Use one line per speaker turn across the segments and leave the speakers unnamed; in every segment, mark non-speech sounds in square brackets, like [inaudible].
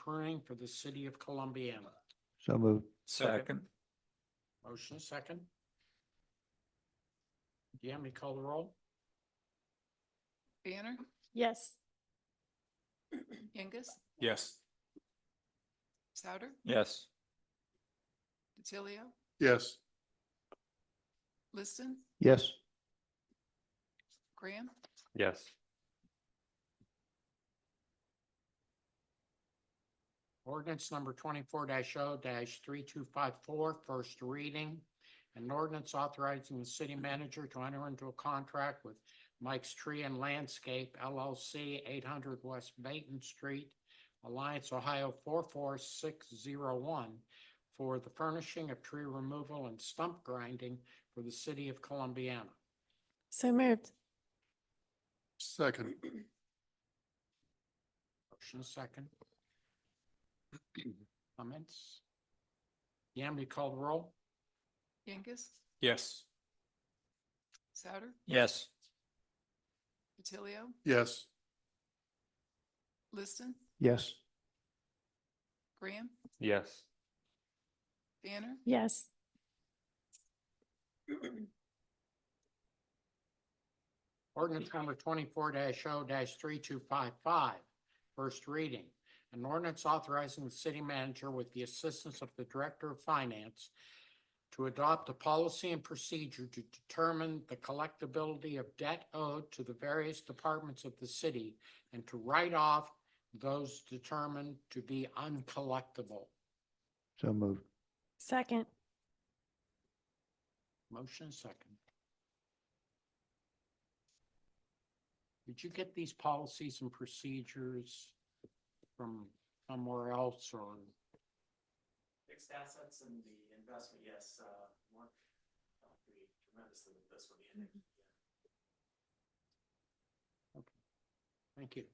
recurring for the city of Columbiana.
So moved.
Second.
Motion is second. Yami, you call the roll?
Banner,
yes,
Yengus,
Yes.
Souter,
Yes.
DiTilio,
yes,
Liston,
Yes.
Graham,
Yes.
Ordinance number twenty-four 0 three-two-five-four, first reading. An ordinance authorizing the city manager to enter into a contract with Mike's Tree and Landscape LLC, eight hundred West Baton Street, Alliance, Ohio four-four-six-zero-one for the furnishing of tree removal and stump grinding for the city of Columbiana.
so moved,
second,
Motion is second. Comments? Yam, you call the roll?
Yengus,
Yes.
Souter,
Yes.
DiTilio,
yes,
Liston,
Yes.
Graham,
Yes.
Banner,
yes,
Ordinance number twenty-four 0 three-two-five-five, first reading. An ordinance authorizing the city manager with the assistance of the Director of Finance to adopt a policy and procedure to determine the collectability of debt owed to the various departments of the city and to write off those determined to be uncollectible.
So moved.
second,
Motion second. Did you get these policies and procedures from somewhere else or?
Fixed assets and the investment, yes, uh, work uh, pretty tremendously with this one. the energy,
Mm-hmm.
yeah.
Thank you.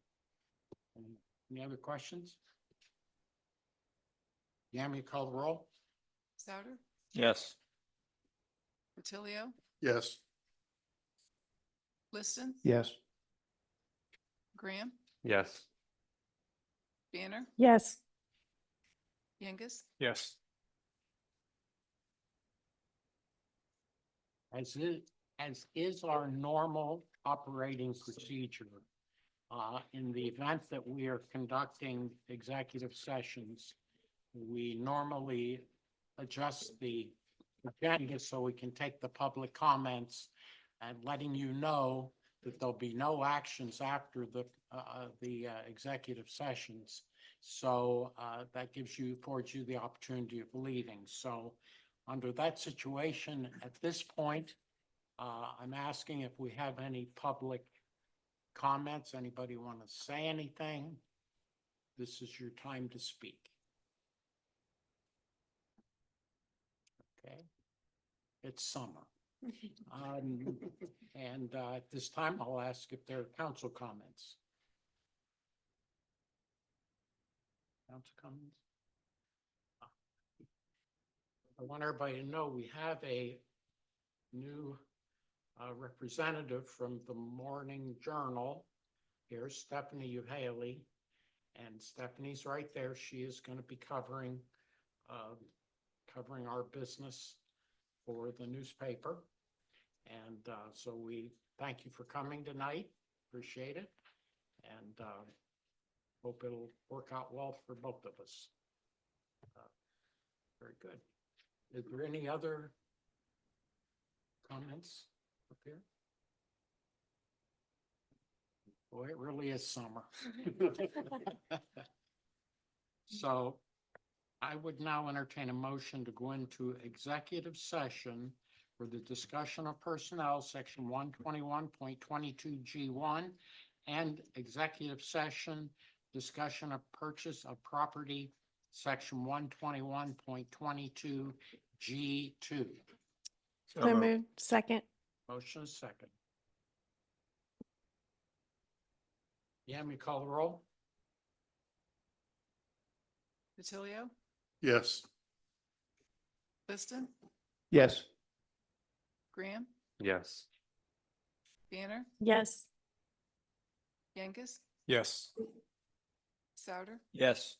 Any- Any other questions? Yami, you call the roll?
Souter,
Yes.
DiTilio,
yes,
Liston,
Yes.
Graham,
Yes.
Banner,
yes,
Yengus,
Yes.
As is, as is our normal operating procedure. Uh, in the event that we are conducting executive sessions, we normally adjust the agenda so we can take the public comments and letting you know that there'll be no actions after the, uh, uh, the, uh, executive sessions. So, uh, that gives you, affords you the opportunity of leaving. So, under that situation, at this point, uh, I'm asking if we have any public comments. Anybody want to say anything? This is your time to speak. Okay. It's summer. Um, and, uh, at this time, I'll ask if there are council comments. Council comments? I want everybody to know we have a new uh, representative from the Morning Journal. Here's Stephanie Uhaly. And Stephanie's right there. She is going to be covering, um, covering our business for the newspaper. And uh, so we thank you for coming tonight. Appreciate it. And uh, hope it'll work out well for both of us. Uh, Very good. Is there any other comments up here? Boy, it really is summer. [laughs] So I would now entertain a motion to go into executive session for the discussion of personnel, section one twenty-one point twenty-two G one, and executive session, discussion of purchase of property, section one twenty-one point twenty-two G two.
so moved, second,
Motion is second. Yam, you call the roll?
DiTilio,
yes.
Liston,
Yes.
Graham,
Yes.
Banner,
yes.
Yengus,
Yes.
Souter,
Yes.